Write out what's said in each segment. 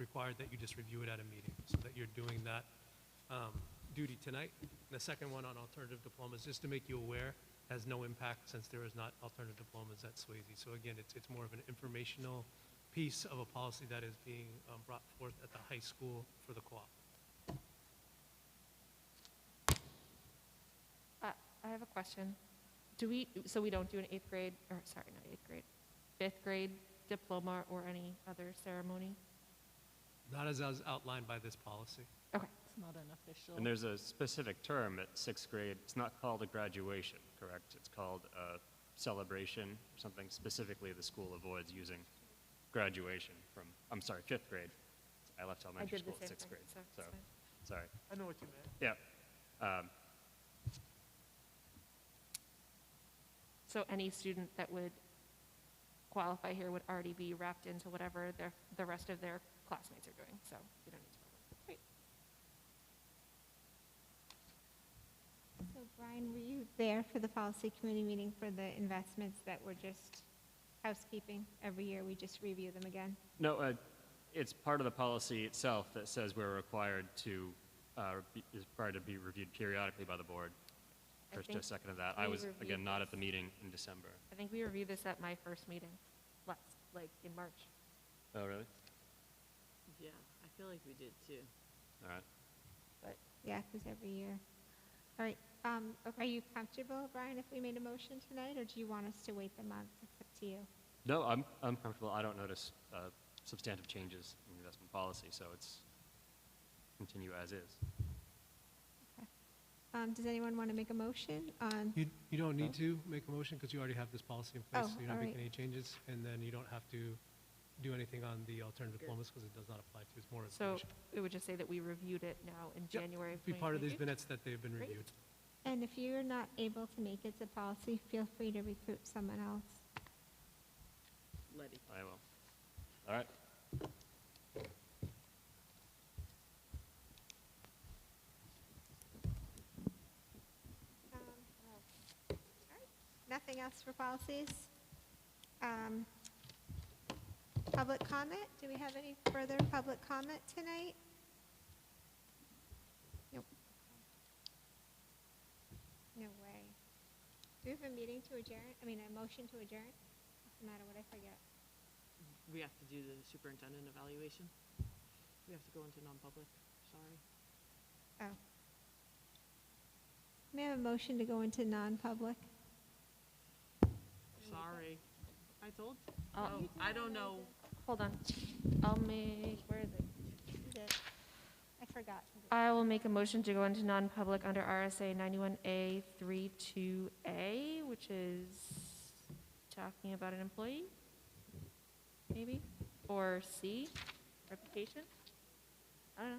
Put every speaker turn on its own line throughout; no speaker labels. required that you just review it at a meeting, so that you're doing that um, duty tonight. And the second one on alternative diplomas, just to make you aware, has no impact since there is not alternative diplomas at Swayze. So again, it's, it's more of an informational piece of a policy that is being um, brought forth at the high school for the co-op.
I Uh, I have a question. Do we, so we don't do an eighth grade, or sorry, not eighth grade, fifth grade diploma or any other ceremony?
Not as, as outlined by this policy.
Okay,
It's not an official.
And there's a specific term at sixth grade, it's not called a graduation, correct? It's called a celebration, something specifically the school avoids using graduation from, I'm sorry, fifth grade. I left elementary
did the
school
same
at sixth
thing,
grade,
so it's
so,
fine.
sorry.
I know what you meant.
Yeah. Um,
so any student that would qualify here would already be wrapped into whatever their, the rest of their classmates are doing, so we don't need to. Great.
So Brian, were you there for the policy committee meeting for the investments that were just housekeeping? Every year, we just review them again?
No, uh, it's part of the policy itself that says we're required to, uh, be- is required to be reviewed periodically by the board.
I
First,
think
just a second of that. I
we
was,
reviewed
again, not at
this.
the meeting in December.
I think we reviewed this at my first meeting, last, like, in March.
Oh, really?
Yeah, I feel like we did too.
All right.
Yeah, because every year. All right, um, are you comfortable, Brian, if we made a motion tonight, or do you want us to wait the month? It's up to you.
No, I'm, I'm comfortable. I don't notice uh, substantive changes in investment policy, so it's continue as is.
Um, does anyone want to make a motion on,
You, you don't need to make a motion because you already have this policy in place.
Oh,
so You're not
all
making
right.
any changes, and then you don't have to do anything on the alternative diplomas because it does not apply to. you. It's more
So
information.
it would just say that we reviewed it now in
Yep,
January of
Be part of these
2022.
minutes that they've been
Great.
reviewed.
and if you're not able to make it to policy, feel free to recruit someone else.
Letty.
I will. All right.
Um, all right. Nothing else for policies? Um, Public comment? Do we have any further public comment tonight? Nope. No way. Do we have a meeting to adjourn? I mean, a motion to adjourn? Doesn't matter what I forget.
We have to do the superintendent evaluation. We have to go into non-public, sorry.
Oh. May I have a motion to go into non-public?
Sorry. I told,
I'll-
oh, I don't know.
Um, Hold on. I'll make, where is it?
Is it- I forgot.
I will make a motion to go into non-public under RSA 91A 32A, which is talking about an employee, maybe, or C, reputation? I don't know.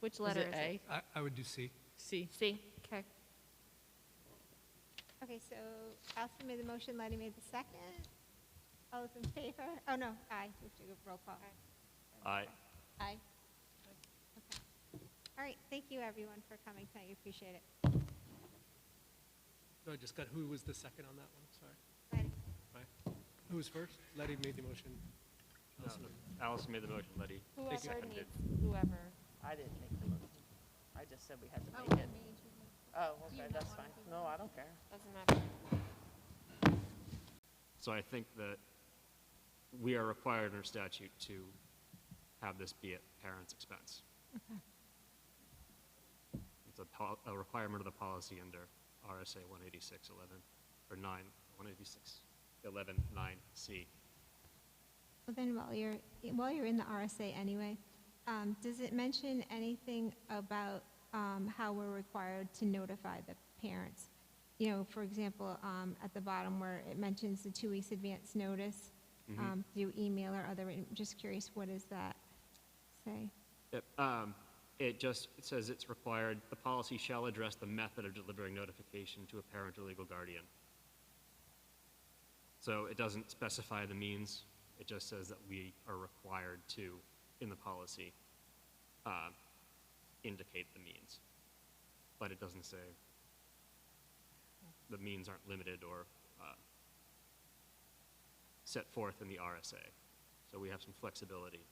Which letter is it?
I, I would do C.
C.
C, okay.
Okay, so Allison made the motion, Letty made the second. All those in favor? Oh, no, aye. We have to go roll call.
I,
Aye. Okay. All right, thank you, everyone, for coming tonight. We appreciate it.
No, I just got, who was the second on that one? Sorry.
Letty?
Right. Who was first? Letty made the motion. Allison.
Allison made the motion, Letty.
Whoever
seconded.
needs, whoever.
I didn't make the motion. I just said we had to make it. Oh, okay, that's fine. No, I don't care.
Doesn't matter.
So I think that we are required under statute to have this be at parents' expense. It's a, pol- a requirement of the policy under RSA 18611, or 9, 186, 11, 9C.
Well, then, while you're, while you're in the RSA anyway, um, does it mention anything about, um, how we're required to notify the parents? You know, for example, um, at the bottom where it mentions the two weeks advance notice, um, through email or other, I'm just curious, what does that say?
Yep, um, It just, it says it's required, the policy shall address the method of delivering notification to a parent or legal guardian. So it doesn't specify the means, it just says that we are required to, in the policy, uh, indicate the means. But it doesn't say, the means aren't limited or uh, set forth in the RSA. So we have some flexibility